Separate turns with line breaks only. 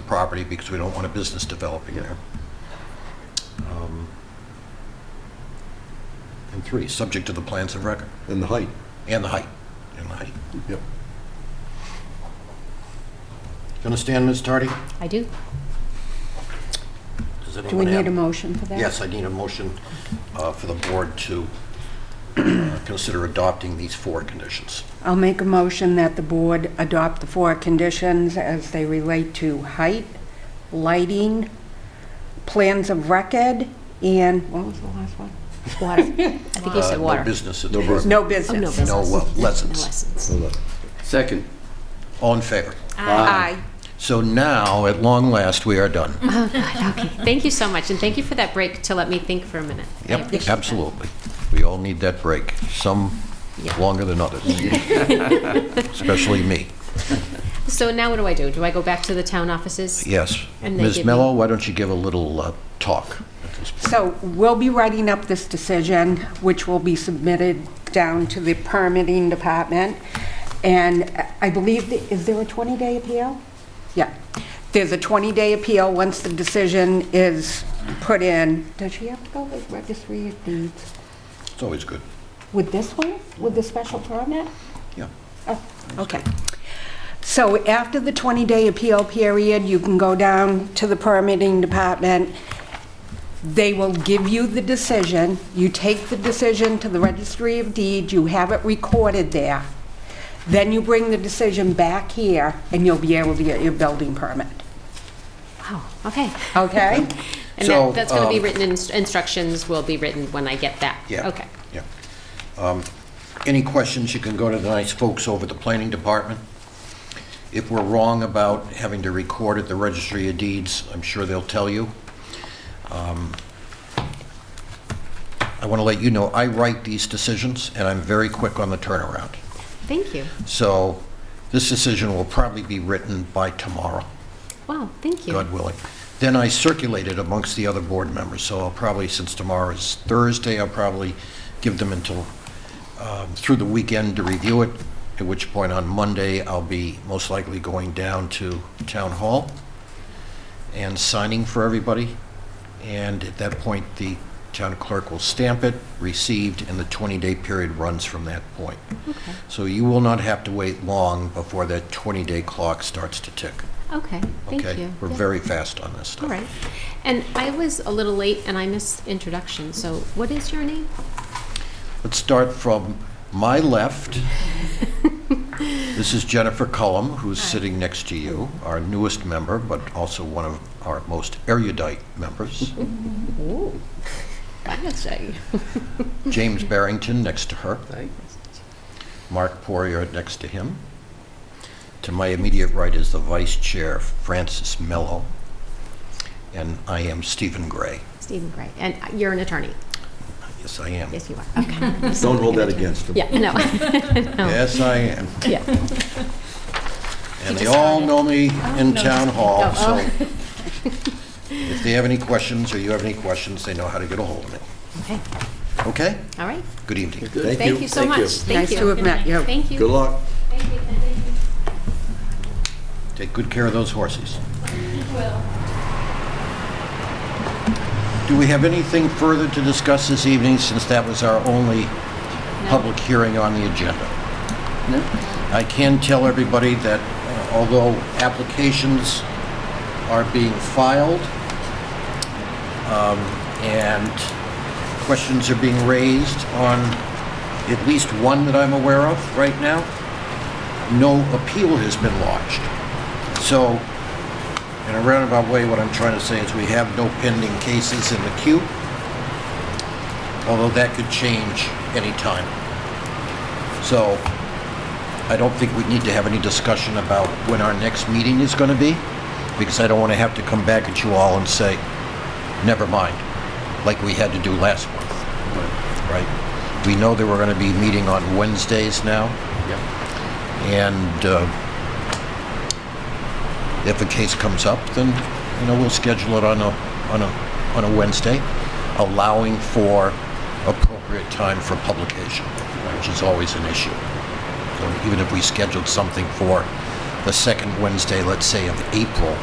property because we don't want a business developing there. Um, And three, subject to the plans of record,
and the height.
and the height, and the height.
Yep.
You understand, Ms. Tardy?
I do.
Does
Do we
anyone
need a
have-
motion for that?
Yes, I need a motion uh, for the board to uh, consider adopting these four conditions.
I'll make a motion that the board adopt the four conditions as they relate to height, lighting, plans of record, and, what was the last one?
Water. I think you
Uh,
said
No
water.
business.
No business.
No
Oh, no
business.
business.
No, uh, lessons.
No lessons.
Hold on.
Second.
All in favor?
Aye.
So now, at long last, we are done.
Oh, God, okay. Thank you so much, and thank you for that break to let me think for a minute. I appreciate
Yep,
that.
absolutely. We all need that break, some
Yeah.
longer than others, especially me.
So now what do I do? Do I go back to the town offices?
Yes.
And they
Ms.
give me-
Mello, why don't you give a little uh, talk?
So we'll be writing up this decision, which will be submitted down to the permitting department. And I believe, th- is there a 20-day appeal? Yeah. There's a 20-day appeal once the decision is put in. Does she have to go with registry of deeds?
It's always good.
With this one? With the special permit?
Yeah.
Oh, okay. So after the 20-day appeal period, you can go down to the permitting department. They will give you the decision. You take the decision to the registry of deeds, you have it recorded there. Then you bring the decision back here, and you'll be able to get your building permit.
Wow, Oh, okay.
Okay?
And
So,
that- that's going to be
um,
written, in- instructions will be written when I get that?
Yeah.
Okay.
Yeah. Um, Any questions, you can go to the nice folks over at the planning department. If we're wrong about having to record at the registry of deeds, I'm sure they'll tell you. Um, I want to let you know, I write these decisions, and I'm very quick on the turnaround.
Thank you.
So this decision will probably be written by tomorrow,
Wow, thank you.
God willing. Then I circulate it amongst the other board members, so I'll probably, since tomorrow is Thursday, I'll probably give them until, um, through the weekend to review it, at which point on Monday, I'll be most likely going down to Town Hall and signing for everybody. And at that point, the town clerk will stamp it, received, and the 20-day period runs from that point. So you will not have to wait long before that 20-day clock starts to tick.
Okay, thank
Okay?
you.
We're
Yeah.
very fast on this stuff.
All right. And I was a little late and I missed introduction, so what is your name?
Let's start from my left. This is Jennifer Cullum, who's sitting next to you, our newest member, but also one of our most erudite members.
Ooh. Fancy.
James Barrington next to her.
Aye.
Mark Poirier next to him. To my immediate right is the vice chair, Francis Mello. And I am Stephen Gray.
Stephen Gray. And you're an attorney?
Yes, I am.
Yes, you are. Okay.
Don't hold that against them.
Yeah, no.
Yes, I am.
Yeah.
And
You
they
just
all
heard it.
know me in town hall, so
Oh,
if they have any questions or you have any questions, they know how to get a hold of me.
Okay.
Okay?
All right.
Good evening.
Thank you so much. Thank
Nice
you.
to have met you.
Thank you.
Good luck.
Thank you. Thank you.
Take good care of those horses. Do we have anything further to discuss this evening, since that was our only public hearing on the agenda? I can tell everybody that uh, although applications are being filed um, and questions are being raised on at least one that I'm aware of right now, no appeal has been lodged. So, in a roundabout way, what I'm trying to say is we have no pending cases in the queue, although that could change any time. So, I don't think we need to have any discussion about when our next meeting is going to be, because I don't want to have to come back at you all and say, never mind, like we had to do last month. Right? We know that we're going to be meeting on Wednesdays now, and uh, if a case comes up, then, you know, we'll schedule it on a, on a, on a Wednesday, allowing for appropriate time for publication, which is always an issue. So even if we scheduled something for the second Wednesday, let's say of April,